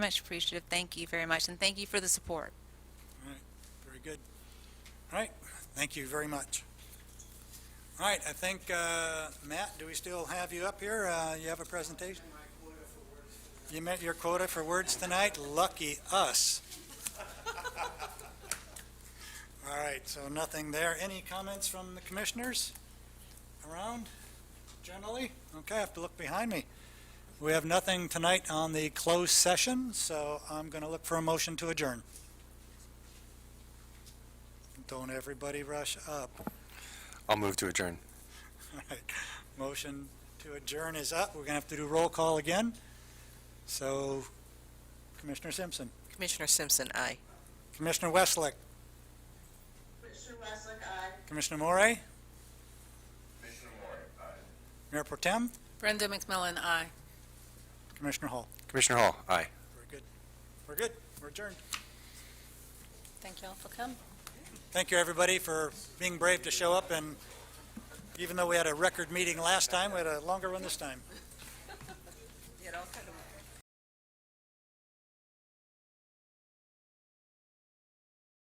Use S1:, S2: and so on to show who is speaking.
S1: Much appreciative. Thank you very much, and thank you for the support.
S2: All right, very good. All right, thank you very much. All right, I think, uh, Matt, do we still have you up here? Uh, You have a presentation? You met your quota for words tonight? Lucky us. All right, so nothing there. Any comments from the commissioners around generally? Okay, I have to look behind me. We have nothing tonight on the closed session, so I'm going to look for a motion to adjourn. Don't everybody rush up.
S3: I'll move to adjourn.
S2: All right. Motion to adjourn is up. We're going to have to do roll call again. So Commissioner Simpson,
S4: Commissioner Simpson, aye.
S2: Commissioner Westlake,
S5: Commissioner Westlake, aye.
S2: Commissioner Morey,
S5: Commissioner Moore, aye.
S2: Mayor Protem,
S1: Brenda McMillan, aye.
S2: Commissioner Hall.
S3: Commissioner Hall, aye.
S2: We're good. We're good. We're adjourned.
S1: Thank you all for coming.
S2: Thank you, everybody, for being brave to show up. And even though we had a record meeting last time, we had a longer one this time.